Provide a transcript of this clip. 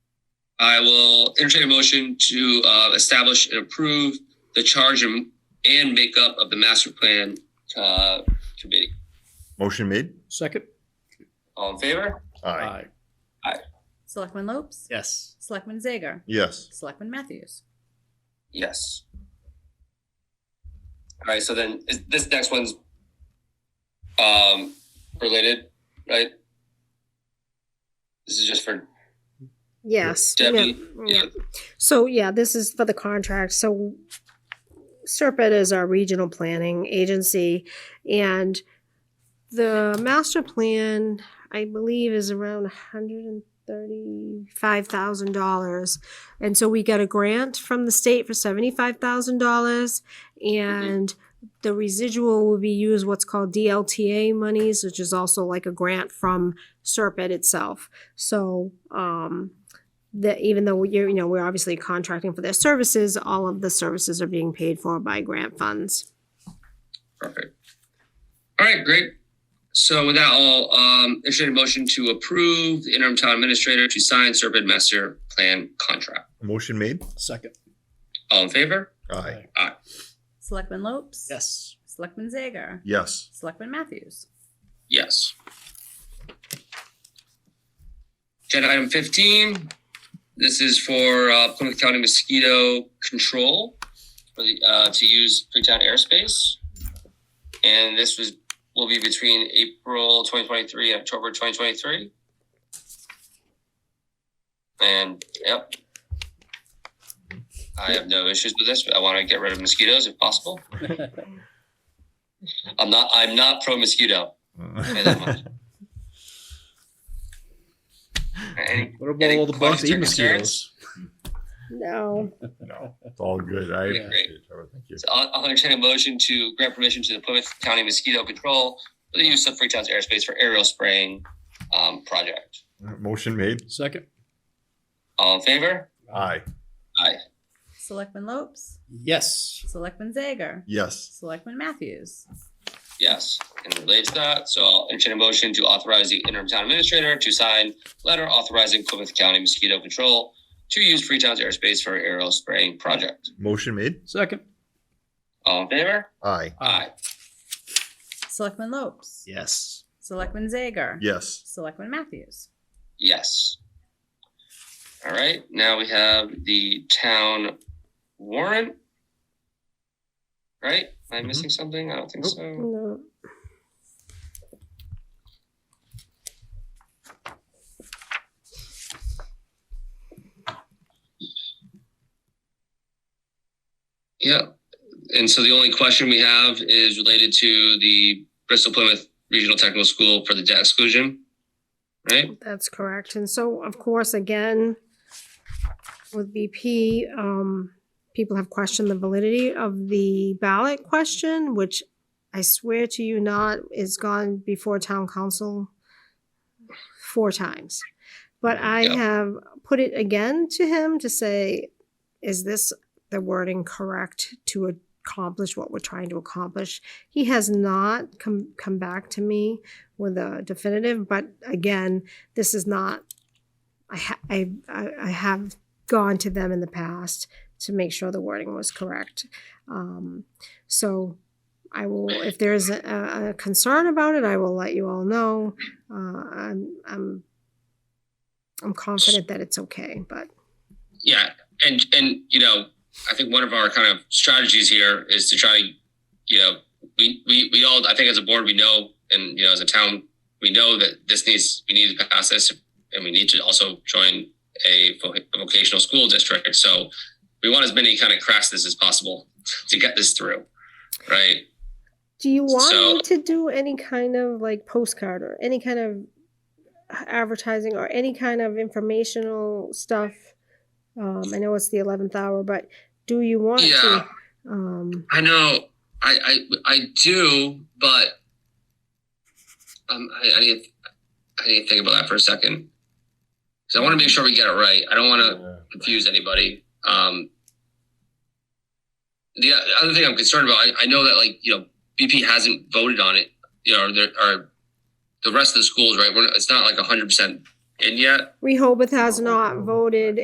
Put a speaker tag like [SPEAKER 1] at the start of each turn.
[SPEAKER 1] I will entertain a motion to uh, establish and approve the charge and, and makeup of the master plan uh, committee.
[SPEAKER 2] Motion made.
[SPEAKER 3] Second?
[SPEAKER 1] All in favor?
[SPEAKER 2] Aye.
[SPEAKER 4] Selectman Lopes?
[SPEAKER 3] Yes.
[SPEAKER 4] Selectman Zager?
[SPEAKER 2] Yes.
[SPEAKER 4] Selectman Matthews?
[SPEAKER 1] Yes. All right. So then is, this next one's um, related, right? This is just for
[SPEAKER 5] Yes. yeah,
[SPEAKER 1] Debbie,
[SPEAKER 5] yeah. So, yeah, this is for the contract. So Serpent is our regional planning agency and the master plan, I believe, is around hundred and thirty-five thousand dollars. And so we got a grant from the state for seventy-five thousand dollars and the residual will be used what's called DLTA monies, which is also like a grant from Serpent itself. So, um, that even though you're, you know, we're obviously contracting for their services, all of the services are being paid for by grant funds.
[SPEAKER 1] Perfect. All right, great. So with that, I'll um, entertain a motion to approve the interim town administrator to sign Serpent Master Plan contract.
[SPEAKER 2] Motion made.
[SPEAKER 3] Second?
[SPEAKER 1] All in favor?
[SPEAKER 2] Aye.
[SPEAKER 4] Selectman Lopes?
[SPEAKER 3] Yes.
[SPEAKER 4] Selectman Zager?
[SPEAKER 2] Yes.
[SPEAKER 4] Selectman Matthews?
[SPEAKER 1] Yes. Agenda item fifteen. This is for uh, Plymouth County mosquito control for the, uh, to use Freetown airspace. And this was will be between April twenty twenty three and October twenty twenty three. And yep. I have no issues with this. I want to get rid of mosquitoes if possible. I'm not I'm not pro mosquito. Okay, that much. Any-
[SPEAKER 3] What about
[SPEAKER 1] Any
[SPEAKER 3] all the bugs that eat
[SPEAKER 1] questions or
[SPEAKER 3] mosquitoes?
[SPEAKER 5] No.
[SPEAKER 2] No, it's all good. I
[SPEAKER 1] Yeah, great.
[SPEAKER 2] appreciate it. Trevor. Thank you.
[SPEAKER 1] so I'll, I'll entertain a motion to grant permission to the Plymouth County Mosquito Control for the use of Freetown's airspace for aerial spraying um, project.
[SPEAKER 2] Motion made.
[SPEAKER 3] Second?
[SPEAKER 1] All in favor?
[SPEAKER 2] Aye.
[SPEAKER 1] Aye.
[SPEAKER 4] Selectman Lopes?
[SPEAKER 3] Yes.
[SPEAKER 4] Selectman Zager?
[SPEAKER 2] Yes.
[SPEAKER 4] Selectman Matthews?
[SPEAKER 1] Yes. And relates to that. So I'll entertain a motion to authorize the interim town administrator to sign letter authorizing Plymouth County Mosquito Control to use Freetown's airspace for aerial spraying project.
[SPEAKER 2] Motion made.
[SPEAKER 3] Second?
[SPEAKER 1] All in favor?
[SPEAKER 2] Aye.
[SPEAKER 1] Aye.
[SPEAKER 4] Selectman Lopes?
[SPEAKER 3] Yes.
[SPEAKER 4] Selectman Zager?
[SPEAKER 2] Yes.
[SPEAKER 4] Selectman Matthews?
[SPEAKER 1] Yes. All right, now we have the town warrant. Right? Am I missing something? I don't think
[SPEAKER 2] Nope.
[SPEAKER 1] so.
[SPEAKER 5] No.
[SPEAKER 1] Yeah. And so the only question we have is related to the Bristol Plymouth Regional Technical School for the debt exclusion. Right?
[SPEAKER 5] That's correct. And so, of course, again, with BP, um, people have questioned the validity of the ballot question, which I swear to you not is gone before town council four times. But I
[SPEAKER 1] Yeah.
[SPEAKER 5] have put it again to him to say, is this the wording correct to accomplish what we're trying to accomplish? He has not come, come back to me with a definitive, but again, this is not, I, ha- I, I I have gone to them in the past to make sure the wording was correct. Um, so I will, if there's a, a concern about it, I will let you all know. Uh, I'm, I'm, I'm confident that it's okay, but
[SPEAKER 1] Yeah, and and you know, I think one of our kind of strategies here is to try, you know, we we we all I think as a board we know, and you know, as a town we know that this needs we need to pass this, and we need to also join a vo- vocational school district. So we want as many kind of crashes as possible to get this through, right?
[SPEAKER 5] do you want
[SPEAKER 1] So-
[SPEAKER 5] me to do any kind of like postcard or any kind of advertising or any kind of informational stuff? Um, I know it's the 11th hour, but do you want
[SPEAKER 1] Yeah.
[SPEAKER 5] to? Um,
[SPEAKER 1] I know, I I I do, but um, I, I didn't I didn't think about that for a second. So I want to make sure we get it right. I don't want to confuse anybody. Um, the other thing I'm concerned about, I, I know that like you know BP hasn't voted on it, you know, or, there, or the rest of the schools, right? We're, not- it's not like 100 percent in yet.
[SPEAKER 5] Rehoboth has not voted